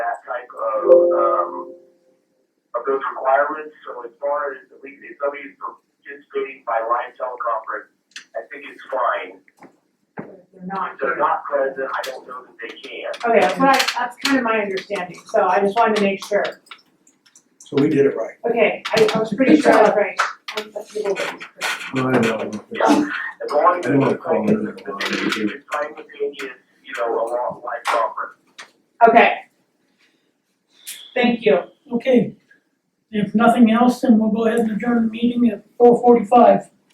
type of, um, of those requirements. So as far as the league, if somebody's participating by live teleconference, I think it's fine. They're not. If they're not present, I don't know that they can. Okay, that's what I, that's kind of my understanding, so I just wanted to make sure. So we did it right. Okay, I, I was pretty sure I was right. Um, that's a little bit crazy. I know. As long as. I don't wanna call it a- It's simultaneous, you know, along live conference. Okay. Thank you. Okay, if nothing else, then we'll go ahead and adjourn the meeting at four forty-five.